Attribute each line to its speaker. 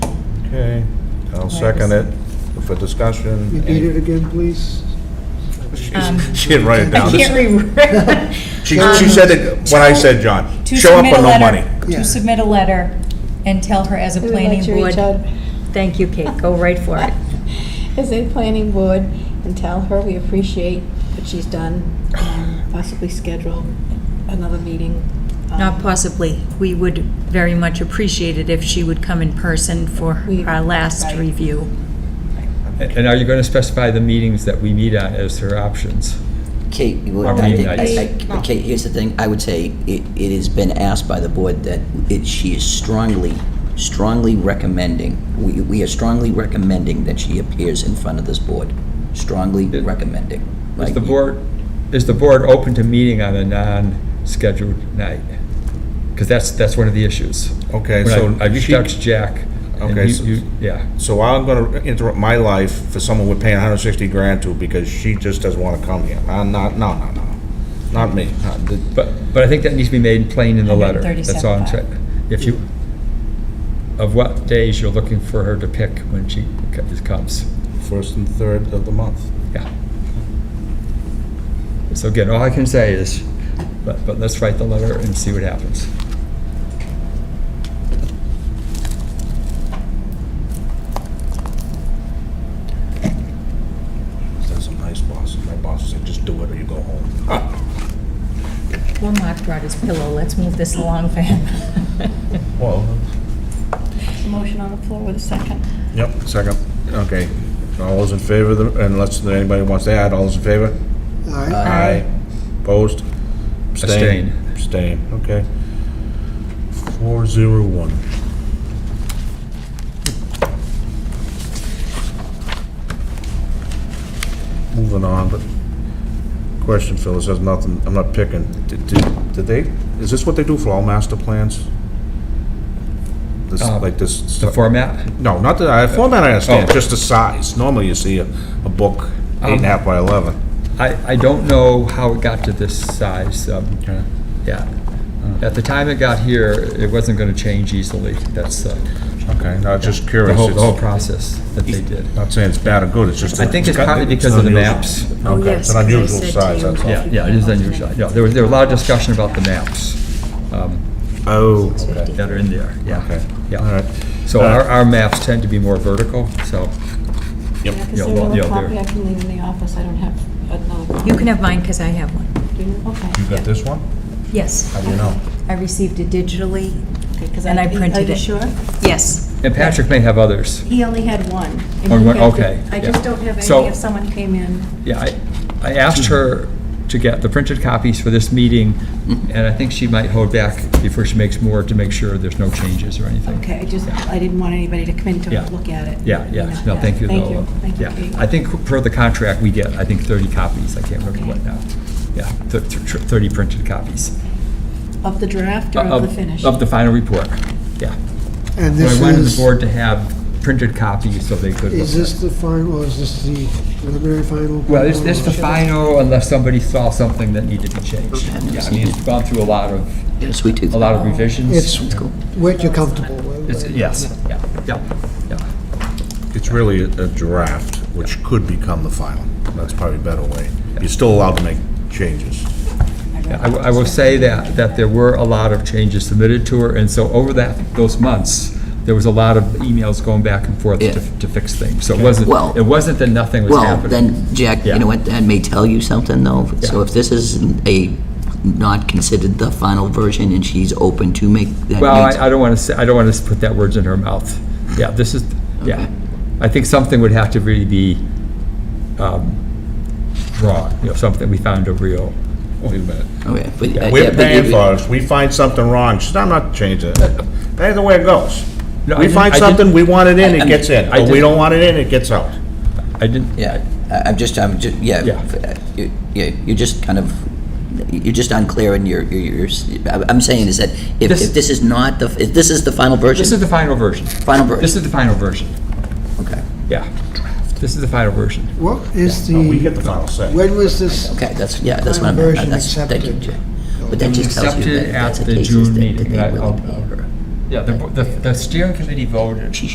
Speaker 1: Okay, I'll second it for discussion.
Speaker 2: Repeat it again, please.
Speaker 3: Um,
Speaker 1: She's- She didn't write it
Speaker 4: I
Speaker 1: down.
Speaker 4: can't remember.
Speaker 1: She, she said it, what I said, John,
Speaker 4: To
Speaker 1: show up
Speaker 4: submit
Speaker 1: or
Speaker 4: a
Speaker 1: no
Speaker 4: letter-
Speaker 1: money.
Speaker 2: Yeah.
Speaker 4: To submit a letter and tell her as a
Speaker 5: We would like
Speaker 4: planning
Speaker 5: to reach
Speaker 4: board.
Speaker 5: out.
Speaker 4: Thank you, Kate, go right for it.
Speaker 5: As a planning board, and tell her we appreciate what she's done, um, possibly schedule another meeting. um,
Speaker 4: Not possibly, we would very much appreciate it if she would come in person for
Speaker 5: We-
Speaker 4: our last
Speaker 5: right.
Speaker 4: review.
Speaker 3: And are you going to specify the meetings that we meet at as her options?
Speaker 6: Kate, you would-
Speaker 3: Or
Speaker 6: I think-
Speaker 3: midnight.
Speaker 6: I- I- Kate, here's the thing, I would say, it, it has been asked by the board that it, she is strongly, strongly recommending, we, we are strongly recommending that she appears in front of this board. Strongly
Speaker 3: It-
Speaker 6: recommending.
Speaker 3: Is
Speaker 6: right?
Speaker 3: the board, is the board open to meeting on a non-scheduled night? Because that's, that's one of the issues.
Speaker 1: Okay,
Speaker 3: When I-
Speaker 1: so
Speaker 3: I reached
Speaker 1: she-
Speaker 3: out to Jack. and
Speaker 1: Okay,
Speaker 3: you-
Speaker 1: so-
Speaker 3: you- Yeah.
Speaker 1: So I'm gonna interrupt my life for someone we're paying hundred and sixty grand to because she just doesn't wanna come here. I'm not, no, no, no, not me. Not the-
Speaker 3: But, but I think that needs to be made plain in the letter. That's all I'm
Speaker 4: 137.5.
Speaker 3: saying. If you, of what days you're looking for her to pick when she co- comes.
Speaker 1: First and third of the month.
Speaker 3: Yeah. So again, all I can say is, but, but let's write the letter and see what happens.
Speaker 1: That's some nice boss. My boss said, just do it or you go home.
Speaker 4: Poor Mark brought his pillow, let's move this along for him.
Speaker 1: Well,
Speaker 5: Motion on the floor with a second.
Speaker 1: yep, second. Okay, all those in favor, of the- unless anybody wants to add, all those in favor?
Speaker 2: All
Speaker 3: Uh,
Speaker 2: right.
Speaker 1: Aye. Opposed?
Speaker 3: Abstain.
Speaker 1: Abstain, okay. Four zero one. Moving on, but question, Phil, this has nothing, I'm not picking. Did, did did they, is this what they do for all master plans? This,
Speaker 3: Uh,
Speaker 1: like this?
Speaker 3: The
Speaker 1: stuff-
Speaker 3: format?
Speaker 1: No, not the, uh, format I understand,
Speaker 3: Oh.
Speaker 1: just the size. Normally you see a, a book, eight and
Speaker 3: Um,
Speaker 1: a half by 11.
Speaker 3: I, I don't know how it got to this size. um,
Speaker 1: Okay.
Speaker 3: Yeah. Uh, At the time it got here, it wasn't going to change easily. That's uh,
Speaker 1: Okay, now just curious.
Speaker 3: the whole, the
Speaker 1: it's-
Speaker 3: whole process that they did.
Speaker 1: Not saying it's bad or good, it's just.
Speaker 3: I think it's probably because of the maps.
Speaker 1: Okay, it's an unusual size, that's all.
Speaker 3: Yeah, yeah, it is unusual. Yeah, there was, there was a lot of discussion about the maps um,
Speaker 1: Oh, okay,
Speaker 3: that are in there,
Speaker 1: okay.
Speaker 3: yeah.
Speaker 1: All
Speaker 3: Yeah.
Speaker 1: right.
Speaker 3: So our, our maps tend to be more vertical, so,
Speaker 1: Yep.
Speaker 5: Yeah, 'cause
Speaker 3: Yeah,
Speaker 5: there
Speaker 3: well,
Speaker 5: were
Speaker 3: yeah,
Speaker 5: a copy
Speaker 3: there-
Speaker 5: I can leave in the office, I don't have another. copy.
Speaker 4: You can have mine, because I have one.
Speaker 5: Do you? Okay.
Speaker 1: You got this one?
Speaker 4: Yes,
Speaker 1: How do you know?
Speaker 4: I received it digitally.
Speaker 5: Okay, 'cause
Speaker 4: And I printed
Speaker 5: Are you
Speaker 4: it.
Speaker 5: sure?
Speaker 4: Yes,
Speaker 3: and Patrick may have others.
Speaker 5: He only had one. and
Speaker 3: Oh,
Speaker 5: he
Speaker 3: one-
Speaker 5: had the-
Speaker 3: okay,
Speaker 5: I
Speaker 3: yeah.
Speaker 5: just don't have
Speaker 3: So-
Speaker 5: any if someone came in.
Speaker 3: Yeah, I, I asked her to get the printed copies for this meeting, and I think she might hold back before she makes more to make sure there's no changes or anything.
Speaker 5: Okay, I just, I didn't want anybody to come in
Speaker 3: Yeah.
Speaker 5: to look at it.
Speaker 3: Yeah, yeah, no, thank you, though.
Speaker 5: Thank you, thank you,
Speaker 3: Yeah.
Speaker 5: Kate.
Speaker 3: I think per the contract, we get, I think, 30 copies, I can't remember what now. Yeah, thir- thir- 30 printed copies.
Speaker 5: Of the draft or of the finish?
Speaker 3: Uh, Of the final report, yeah.
Speaker 2: And
Speaker 3: But
Speaker 2: this
Speaker 3: I wanted the
Speaker 2: is,
Speaker 3: board to have printed copies so they could. look
Speaker 2: is
Speaker 3: at
Speaker 2: this
Speaker 3: it.
Speaker 2: the final, or is this the preliminary final?
Speaker 3: Well, this, this is the
Speaker 2: Should-
Speaker 3: final unless somebody saw something that needed to be changed. Yeah, I mean, it's gone through a lot of,
Speaker 6: Yeah, sweet tooth.
Speaker 3: a lot of revisions.
Speaker 2: It's
Speaker 6: cool.
Speaker 2: what you're comfortable with.
Speaker 3: It's-
Speaker 2: right?
Speaker 3: Yes, yeah, yeah, yeah.
Speaker 1: It's really a draft, which could become the final. That's probably a better way. You're still allowed to make changes.
Speaker 3: Yeah, I will- I will say that, that there were a lot of changes submitted to her, and so over that, those months, there was a lot of emails going back and forth
Speaker 6: Yeah.
Speaker 3: to to fix things. So it wasn't,
Speaker 6: Well-
Speaker 3: it wasn't that nothing was
Speaker 6: Well,
Speaker 3: happening.
Speaker 6: then, Jack, you
Speaker 3: Yeah.
Speaker 6: know what, that may tell you something, though. So
Speaker 3: Yeah.
Speaker 6: if this is a, not considered the final version, and she's open to make, that
Speaker 3: Well,
Speaker 6: means-
Speaker 3: I, I don't want to say, I don't want to put that words in her mouth. Yeah, this is, yeah.
Speaker 6: Okay.
Speaker 3: I think something would have to really be um, drawn, you know, something we found a real,
Speaker 1: Wait a minute.
Speaker 6: Okay, but- uh, yeah,
Speaker 1: We're
Speaker 6: but
Speaker 1: paying
Speaker 6: you-
Speaker 1: for Uh, it. Uh, If we find something wrong, she's, I'm not changing it. That ain't the way it goes.
Speaker 3: No, I
Speaker 1: We
Speaker 3: didn't-
Speaker 1: find
Speaker 3: I didn't-
Speaker 1: something, we want it in,
Speaker 6: I-
Speaker 1: it
Speaker 6: I-
Speaker 1: gets in.
Speaker 3: I
Speaker 1: Or we
Speaker 3: didn't-
Speaker 1: don't want it in, it gets out.
Speaker 3: I didn't,
Speaker 6: Yeah, I- I'm just, I'm just, yeah,
Speaker 3: Yeah.
Speaker 6: uh, you- yeah, you're just kind of, you're just unclear in your, your- your, s- I'm I'm saying is that if,
Speaker 3: This-
Speaker 6: if this is not the, if this is the final version?
Speaker 3: this is the final version.
Speaker 6: Final version.
Speaker 3: This is the final version,
Speaker 6: Okay,
Speaker 3: yeah. This is the final version.
Speaker 2: What is
Speaker 1: No, We get
Speaker 2: the,
Speaker 1: the final say.
Speaker 2: when was this,
Speaker 6: okay, that's, yeah, that's what I'm,
Speaker 2: Final version
Speaker 6: that's, thank you,
Speaker 2: accepted.
Speaker 6: Jay. But that just tells you
Speaker 3: Accepted
Speaker 6: that if that's
Speaker 3: at
Speaker 6: the
Speaker 3: the
Speaker 6: case, is
Speaker 3: June
Speaker 6: that that
Speaker 3: meeting,
Speaker 6: they
Speaker 3: I-
Speaker 6: will
Speaker 3: I'll-
Speaker 6: pay her.
Speaker 3: Yeah, the, the- the steering committee voted